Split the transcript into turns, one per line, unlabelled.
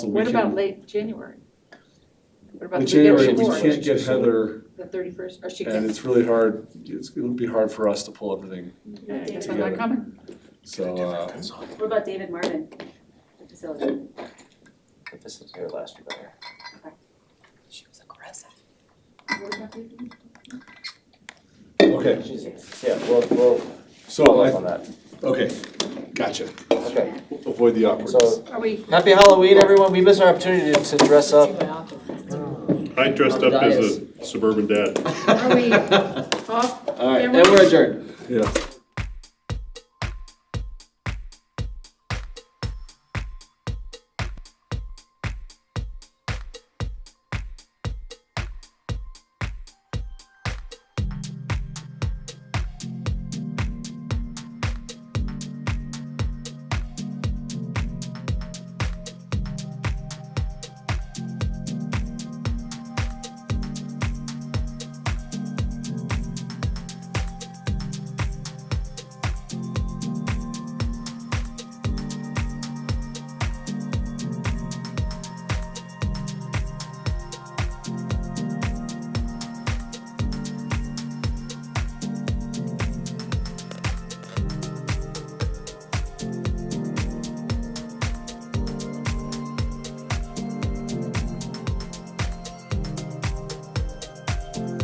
What
We
about
can-
late January? What about
In
the
January,
week
we
before,
can't get Heather,
the thirty-first, or she
and
can,
it's really hard, it's, it would be hard for us to pull everything,
I guess I'm not
together.
coming.
so, uh,
What about David Marvin, the facility?
The facility here last year better.
She was aggressive.
What about the-
okay,
She's- Yeah, we'll, we'll
so,
follow up
I,
on that.
okay, gotcha,
Okay,
avoid the awkwardness.
so,
Are we,
happy Halloween, everyone. We missed our opportunity to to dress up.
I dressed up as a suburban dad.
are we off
All right,
camera?
and we're adjourned.
Yeah.